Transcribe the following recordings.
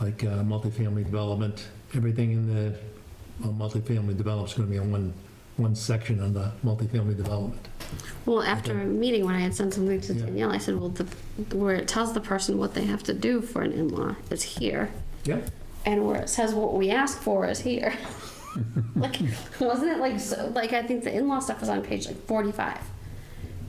like uh, multifamily development, everything in the, well, multifamily development's gonna be in one, one section on the multifamily development. Well, after a meeting, when I had sent something to Yeah. Danielle, I said, well, the, where it tells the person what they have to do for an in-law is here. Yeah, And where it says what we ask for is here. like, wasn't it like, so, like, I think the in-law stuff was on page like forty-five.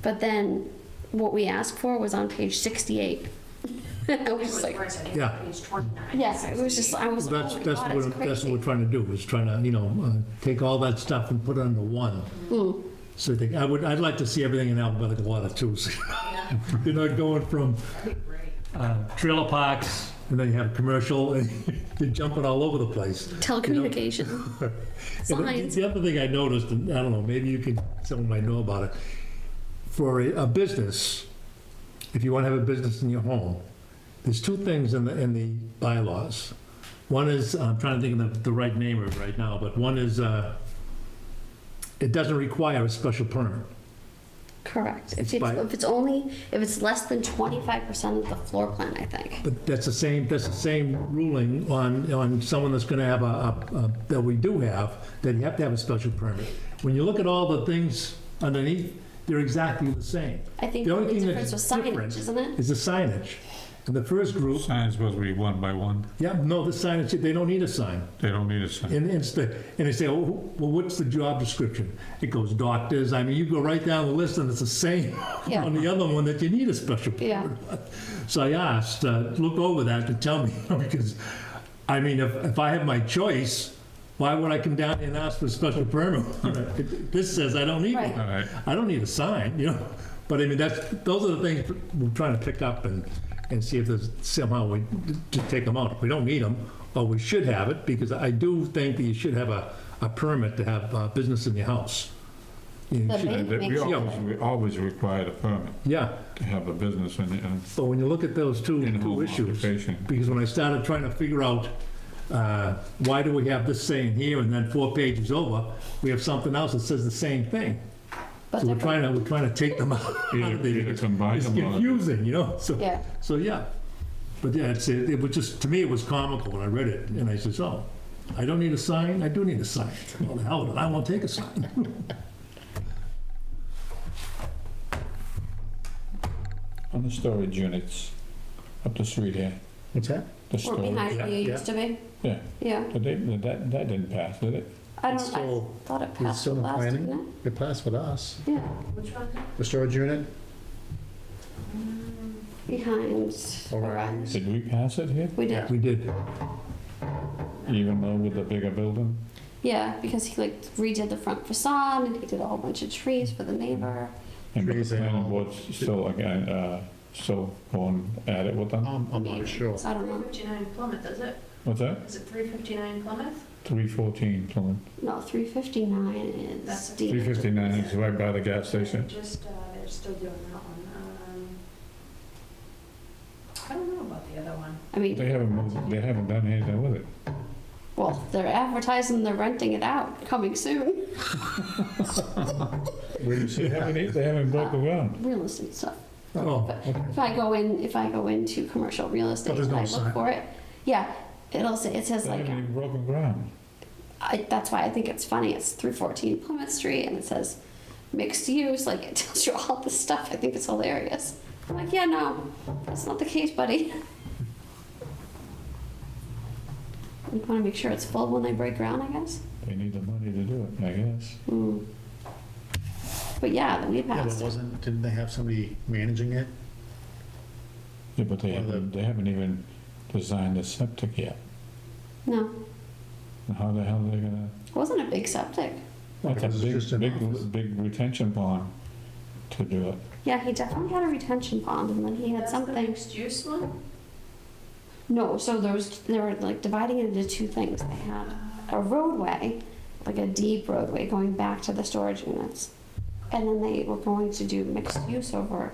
But then what we asked for was on page sixty-eight. I was just like, Yeah. Page 29. yes, it was just, I was, that's, oh my that's god, it's what, that's what crazy. we're trying to do, is trying to, you know, uh, take all that stuff and put it under one. So I think, I would, I'd like to see everything in alphabetical order too, so you're not going from uh, trailer parks, and then you have commercial, and you're jumping all over the place. Telecommunication. And the- Signs. The other thing I noticed, and I don't know, maybe you can, someone might know about it. For a, a business, if you want to have a business in your home, there's two things in the, in the bylaws. One is, I'm trying to think of the, the right name of it right now, but one is, uh, it doesn't require a special permit. Correct. It's If it's, by- if it's only, if it's less than twenty-five percent of the floor plan, I think. But that's the same, that's the same ruling on, on someone that's gonna have a, a- a- that we do have, that you have to have a special permit. When you look at all the things underneath, they're exactly the same. I think The the only only thing difference was that's signage, different- isn't it? It's the signage. And the first group, Sign's supposed to be one by one. yeah, no, the signage, they don't need a sign. They don't need a sign. And it's the, and they say, well, wh- well, what's the job description? It goes doctors, I mean, you go right down the list and it's the same Yeah. on the other one that you need a special Yeah. permit. So I asked, uh, look over that to tell me, because, I mean, if, if I have my choice, why would I come down and ask for a special permit? It- This says I don't need Right. one. All right. I don't need a sign, you know, but I mean, that's, those are the things we're trying to pick up and, and see if there's somehow we, to take them out. If we don't need them, or we should have it, because I do think that you should have a, a permit to have uh business in your house. You The should- main- They- We Makes- always, we always required a permit Yeah, to have a business in, uh, in but when you look at those two, two in-home issues, occupation. because when I started trying to figure out, uh, why do we have this saying here, and then four pages over, we have something else that says the same thing. But So we're they're- trying to, we're trying to take them out of Either the, either combine it's them or... confusing, you know, so. Yeah, So, yeah, but yeah, it's, it it was just, to me, it was comical when I read it, and I says, oh, I don't need a sign, I do need a sign. Well, the hell with it, I won't take a sign. On the storage units, up the street here, What's that? the or storage, behind where yeah, you used to be, yeah. yeah. But they, that, that didn't pass, did it? I It's don't, I still- thought it it's passed still in last, planning. didn't It passed with us, it? Yeah, Which one? the storage unit, behind Orion. Orion's. Did we pass it here? We did, We did. Even though with the bigger building? yeah, because he like redid the front facade, and he did a whole bunch of trees for the neighbor. And the Trees and planning all. board's still, again, uh, still going at it with them? I'm, I'm not sure. So I don't know, 359 Plymouth, is it? What's that? Is it 359 Plymouth? Three fourteen, Plymouth. no, three fifty-nine is That's a- Three D, fifty-nine is right by the gas station. Just, uh, they're still doing that one. Um, I don't know about the other one. I mean, They haven't moved, they haven't done anything with it. well, they're advertising, they're renting it out, coming soon, Where do you see They that? haven't, they haven't broke the ground. real estate stuff. Oh, But if I go in, if I go into commercial real estate there's and no I look sign. for it, yeah, it'll say, it says They like, haven't even broken ground. I, that's why I think it's funny. It's 314 Plymouth Street and it says mixed use. Like it tells you all this stuff. I think it's hilarious. I'm like, yeah, no, that's not the case, buddy. You want to make sure it's full when they break ground, I guess. They need the money to do it, I guess. Hmm. But yeah, then we Yeah, passed. but wasn't, didn't they have somebody managing it? Yeah, but they Well, the- haven't, they haven't even designed the septic yet. no, And How the hell are they gonna, it wasn't a big septic. that's Because a it's just big, an office. big, big retention pond to do it. Yeah, he definitely had a retention pond, and then he had That's the something. mixed-use one? No, so there was they were like dividing it into two things. They had a roadway, like a deep roadway going back to the storage units. And then they were going to do mixed use over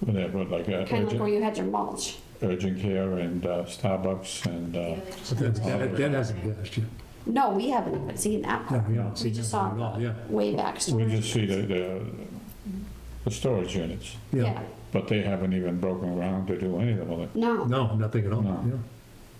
Where they put like uh, kind of like where urgent, you had your mulch. urgent care and uh, Starbucks and, uh, Yeah, they just- but that's- that, that hasn't passed yet. No, we haven't even seen that No, part. we haven't We seen just that saw one at all, yeah. the way back we storage. just see the, the, the storage units. Yeah, But they haven't even broken ground to do anything with it. no, No, nothing at all, No. yeah.